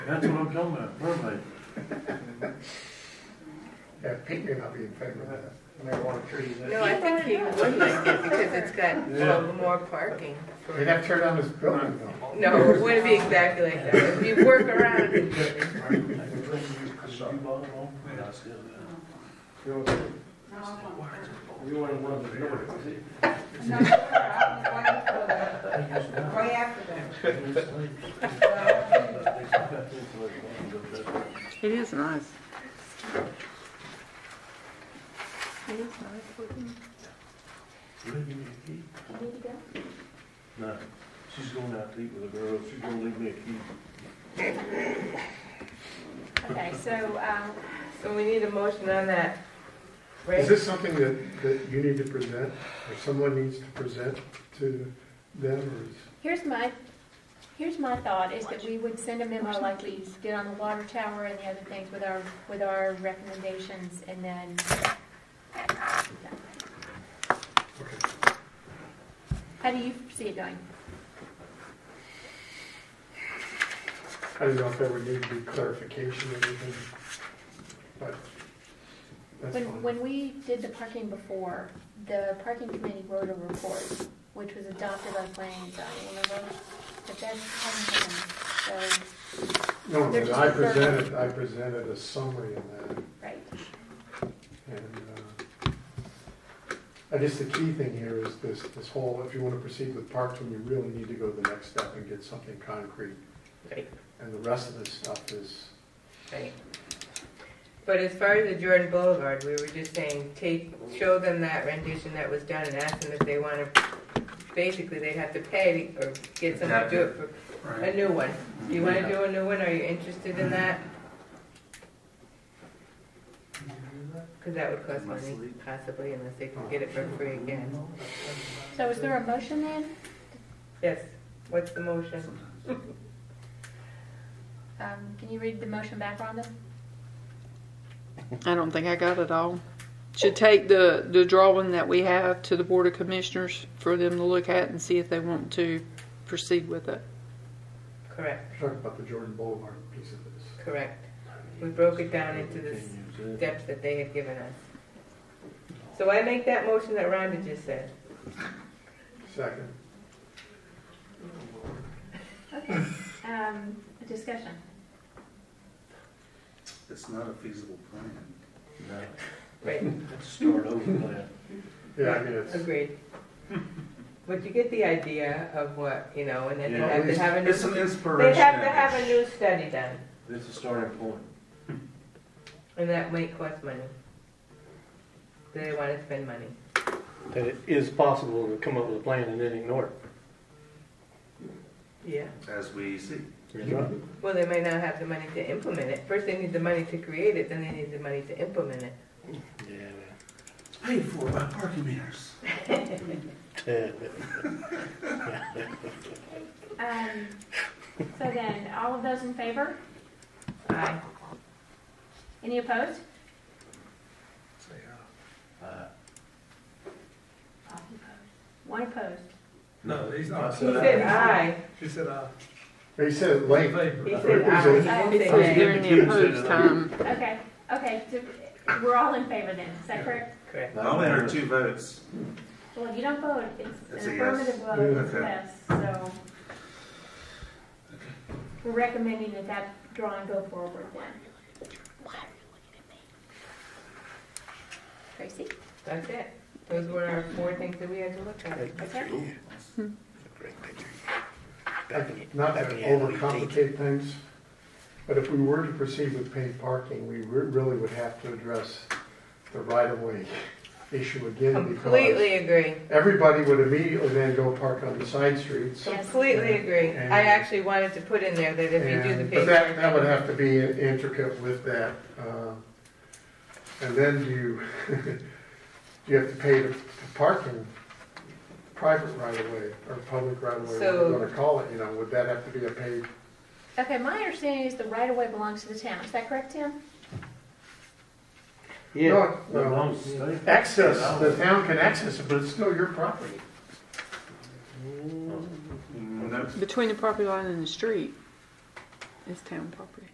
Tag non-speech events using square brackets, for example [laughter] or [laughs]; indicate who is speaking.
Speaker 1: That's what I'm coming at, probably.
Speaker 2: Yeah, Pete may not be in favor of that, marijuana trees.
Speaker 3: No, I think he would like it because it's got a little more parking.
Speaker 2: They'd have to tear down this building though.
Speaker 3: No, it wouldn't be exactly like that. If you work around it, it
Speaker 1: I can bring you, cause you bought it all. I still do.
Speaker 4: You want one of the doors, is it?
Speaker 5: No, I'm waiting for the, way after that.
Speaker 3: is nice. It is nice looking.
Speaker 1: Will you give me a key? No, she's going out to eat with the girls, she's gonna leave me a key.
Speaker 6: Okay, so, um,
Speaker 3: So we need a motion on that.
Speaker 2: Is
Speaker 3: Right?
Speaker 2: this something that, that you need to present, or someone needs to present to them, or is?
Speaker 6: here's my, here's my thought, is that we would send a memo like we did on the water tower and the other things with our, with our recommendations, and then,
Speaker 2: Okay.
Speaker 6: how do you see it going?
Speaker 2: I don't know if there would need to be clarification or anything, but that's
Speaker 6: When,
Speaker 2: fine.
Speaker 6: when we did the parking before, the parking committee wrote a report, which was adopted by planning and zoning, remember? But that hasn't been, so,
Speaker 2: No,
Speaker 6: they're
Speaker 2: but
Speaker 6: just
Speaker 2: I
Speaker 6: a third.
Speaker 2: presented, I presented a summary of that,
Speaker 6: right,
Speaker 2: and, uh, I guess the key thing here is this, this whole, if you wanna proceed with parking, you really need to go to the next step and get something concrete.
Speaker 3: Right.
Speaker 2: And the rest of this stuff is,
Speaker 3: Right. But as far as the Jordan Boulevard, we were just saying, take, show them that rendition that was done and ask them if they wanna, basically, they'd have to pay or get someone to do it for a new one. Do you wanna do a new one? Are you interested in that? Cause that would cost money possibly unless they can get it for free again.
Speaker 6: so is there a motion then?
Speaker 3: Yes, what's the motion?
Speaker 6: Um, can you read the motion back, Rhonda?
Speaker 7: I don't think I got it all. Should take the, the drawing that we have to the Board of Commissioners for them to look at and see if they want to proceed with it.
Speaker 3: Correct,
Speaker 2: talking about the Jordan Boulevard piece of this.
Speaker 3: correct. We broke it down into this steps that they had given us. So I make that motion that Rhonda just said.
Speaker 2: Second,
Speaker 6: Okay, um, discussion.
Speaker 8: It's not a feasible plan.
Speaker 1: No,
Speaker 3: Right,
Speaker 1: let's start over plan.
Speaker 2: yeah, I mean, it's,
Speaker 3: agreed. But you get the idea of what, you know, and then they
Speaker 1: Yeah,
Speaker 3: have to have a
Speaker 8: It's an
Speaker 3: new,
Speaker 8: inspiration.
Speaker 3: they have to have a new study done,
Speaker 1: This is a starting point.
Speaker 3: and that might cost money. Do they want to spend money?
Speaker 4: That it is possible to come up with a plan and then ignore it.
Speaker 3: Yeah.
Speaker 8: As we see.
Speaker 3: Well, they might not have the money to implement it. First, they need the money to create it, then they need the money to implement it.
Speaker 4: Yeah,
Speaker 8: Paid for by parking meters.
Speaker 4: tad bit.
Speaker 6: Um, so then, all of those in favor?
Speaker 3: Aye.
Speaker 6: Any opposed?
Speaker 2: say, uh,
Speaker 1: Uh,
Speaker 6: One opposed.
Speaker 1: No, he's
Speaker 2: not.
Speaker 3: He said aye.
Speaker 2: he said it late,
Speaker 3: He said aye. He
Speaker 7: I was
Speaker 3: didn't say nay.
Speaker 7: during the opposed time.
Speaker 6: Okay, okay, so we're all in favor then, is that correct?
Speaker 3: Correct.
Speaker 8: I only heard two votes.
Speaker 6: Well, if you don't vote, it's
Speaker 8: It's
Speaker 6: an
Speaker 8: a yes.
Speaker 6: affirmative vote, it's a
Speaker 8: Okay.
Speaker 6: yes, so. We're recommending that that drawing go forward then. Tracy?
Speaker 3: That's it. Those were our four things that we had to look at.
Speaker 6: Okay.
Speaker 2: not to overcomplicate things, but if we were to proceed with paid parking, we re- really would have to address the right-of-way issue again, because
Speaker 3: Completely agree.
Speaker 2: everybody would immediately then go park on the side streets.
Speaker 6: Yes.
Speaker 3: Completely agree.
Speaker 2: And-
Speaker 3: I actually wanted to put in there that if you do the
Speaker 2: And-
Speaker 3: paper.
Speaker 2: But that, that would have to be intricate with that. uh, And then do you, [laughs] do you have to pay the parking, private right-of-way, or public right-of-way, whatever you
Speaker 3: So-
Speaker 2: want to call it, you know, would that have to be a paid
Speaker 6: Okay, my understanding is the right of way belongs to the town, is that correct, Tim?
Speaker 4: Yeah,
Speaker 2: No, no.
Speaker 1: long state.
Speaker 2: Access, the town can access it, but it's still your property.
Speaker 8: No,
Speaker 7: Between the property line and the street. It's town property.